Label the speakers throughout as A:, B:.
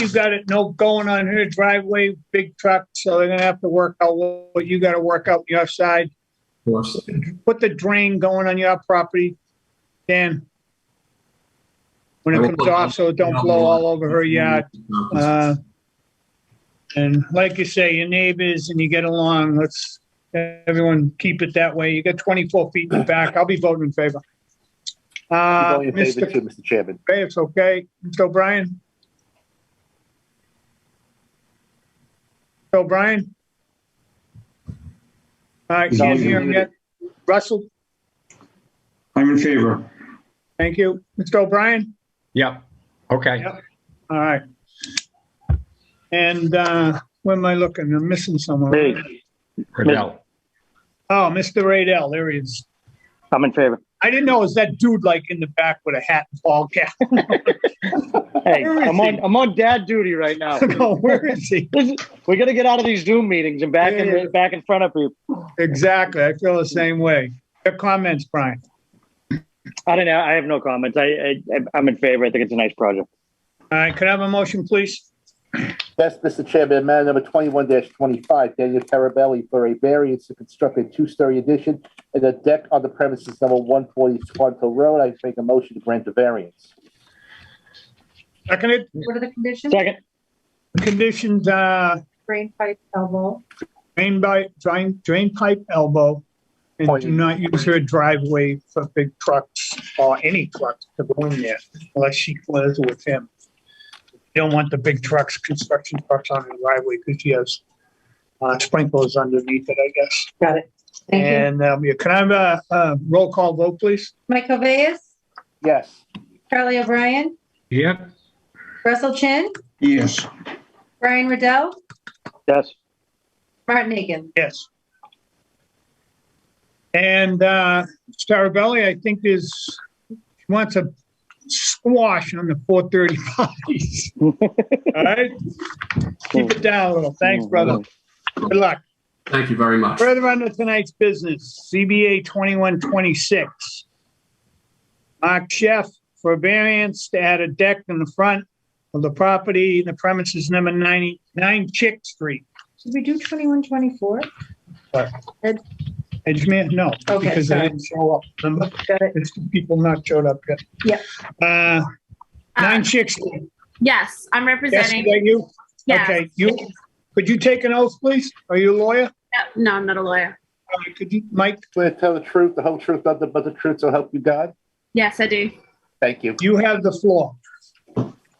A: you got it, no going on her driveway, big truck, so they're gonna have to work out what you gotta work out your side.
B: course.
A: Put the drain going on your property, Dan. When it comes off, so it don't blow all over her yard. Uh, And like you say, your neighbors and you get along, let's, everyone keep it that way. You got 24 feet in the back. I'll be voting in favor. Uh,
C: Voting in favor
A: Mr.
C: too, Mr. Chairman.
A: Okay, it's okay. Mr. O'Brien? Mr. O'Brien? All right,
C: He's
A: can't hear him yet.
C: muted.
A: Russell,
D: I'm in favor.
A: thank you. Mr. O'Brien?
B: Yep, okay.
A: Yep. All right. And uh, where am I looking? I'm missing someone.
C: Hey,
B: Riddell.
A: Oh, Mr. Radell, there he is.
C: I'm in favor.
A: I didn't know, is that dude like in the back with a hat and ball cap?
C: Hey,
A: Where is
C: I'm on,
A: he?
C: I'm on dad duty right now.
A: No, where is he?
C: This is- We gotta get out of these Zoom meetings and back
A: Yeah, yeah.
C: in, back in front of people.
A: Exactly, I feel the same way. Your comments, Brian?
C: I don't know, I have no comments. I, I, I'm in favor. I think it's a nice project.
A: All right, could I have a motion, please?
E: Yes, Mr. Chairman, matter number twenty-one twenty-five, Daniel Carabelli for a variance to construct a two-story addition and a deck on the premises number one forty Squanto Road. I make a motion to grant the variance.
A: Seconded,
F: What are the conditions?
C: Second,
A: conditions, uh,
F: Drain pipe elbow.
A: drain by, drain, drain pipe elbow. And do not use her driveway for big trucks or any trucks to go in there unless she lives with him. You Don't want the big trucks, construction trucks on the driveway because she has, uh, sprinklers underneath it, I guess.
F: Got it. Thank you.
A: And, um, yeah, can I have a, a roll call vote, please?
F: Mike Cavais,
E: Yes,
F: Charlie O'Brien,
B: Yep,
F: Russell Chin,
D: Yes,
F: Brian Riddell,
C: yes,
F: Martin Egan.
A: Yes. And uh Starabelli, I think is, she wants a squash on the four thirty parties. All right? Keep it down a little. Thanks, brother. Good luck.
B: thank you very much.
A: Further on to tonight's business, CBA 2126. Mark Chef for a variance to add a deck in the front of the property in the premises number 99 Chick Street.
F: Should we do twenty-one, twenty-four?
A: Edgemere, no,
F: Okay,
A: because they
F: sorry.
A: didn't show up. Remember?
F: Got it.
A: There's two people not showed up yet.
F: Yep.
A: Uh, nine
G: Uh,
A: chicks.
G: Yes, I'm
A: Yes, is
G: representing.
A: that you?
G: Yeah.
A: Okay, you, could you take an oath, please? Are you a lawyer?
G: Yeah, No, I'm not a lawyer.
A: Uh, Could you, Mike,
E: swear to tell the truth, the whole truth, nothing but the truth, so help you God.
G: Yes, I do.
E: Thank you.
A: you have the floor.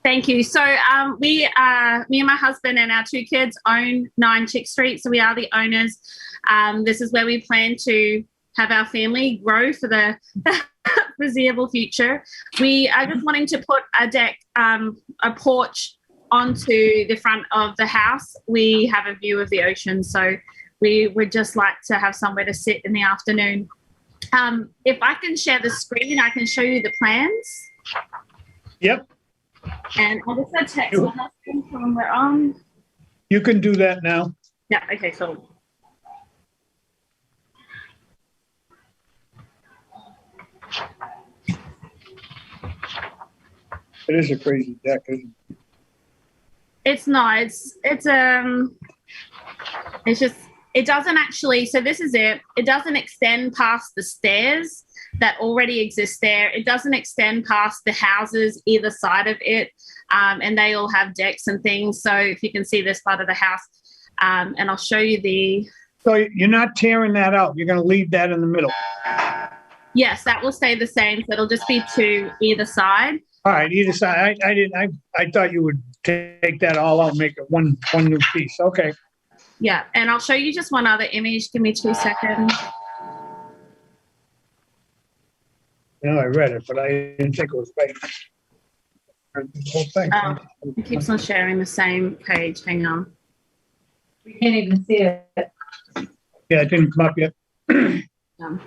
G: Thank you. So um, we, uh, me and my husband and our two kids own Nine Chick Street. So we are the owners. Um, this is where we plan to have our family grow for the foreseeable future. We are just wanting to put a deck, um, a porch onto the front of the house. We have a view of the ocean, so we would just like to have somewhere to sit in the afternoon. Um, if I can share the screen, I can show you the plans.
A: Yep,
G: And I just got text my husband when we're on.
A: you can do that now.
G: Yeah, okay, cool.
A: It is a crazy deck, isn't
G: It's not, it's, it's, um, it's just, it doesn't actually, so this is it. It doesn't extend past the stairs that already exist there. It doesn't extend past the houses either side of it. Um, and they all have decks and things. So if you can see this part of the house, um, and I'll show you the,
A: it? So you're not tearing that out. You're going to leave that in the middle.
G: yes, that will stay the same. So it'll just be two either side.
A: All right, either side. I, I didn't, I, I thought you would take that all out, and make it one, one new piece. Okay.
G: Yeah, and I'll show you just one other image. Give me two seconds.
A: No, I read it, but I didn't think it was right. The whole thing.
G: Oh, It keeps on sharing the same page. Hang on.
F: We can't even see it.
A: Yeah, it didn't come up yet.
G: Um,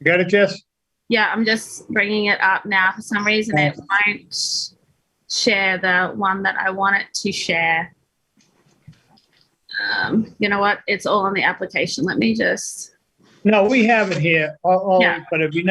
A: You got it, Jess?
G: yeah, I'm just bringing it up now. For some reason, it won't share the one that I want it to share. Um, you know what? It's all on the application. Let me just.
A: No, we have it here, all, all,
G: Yeah.
A: but it'd be nice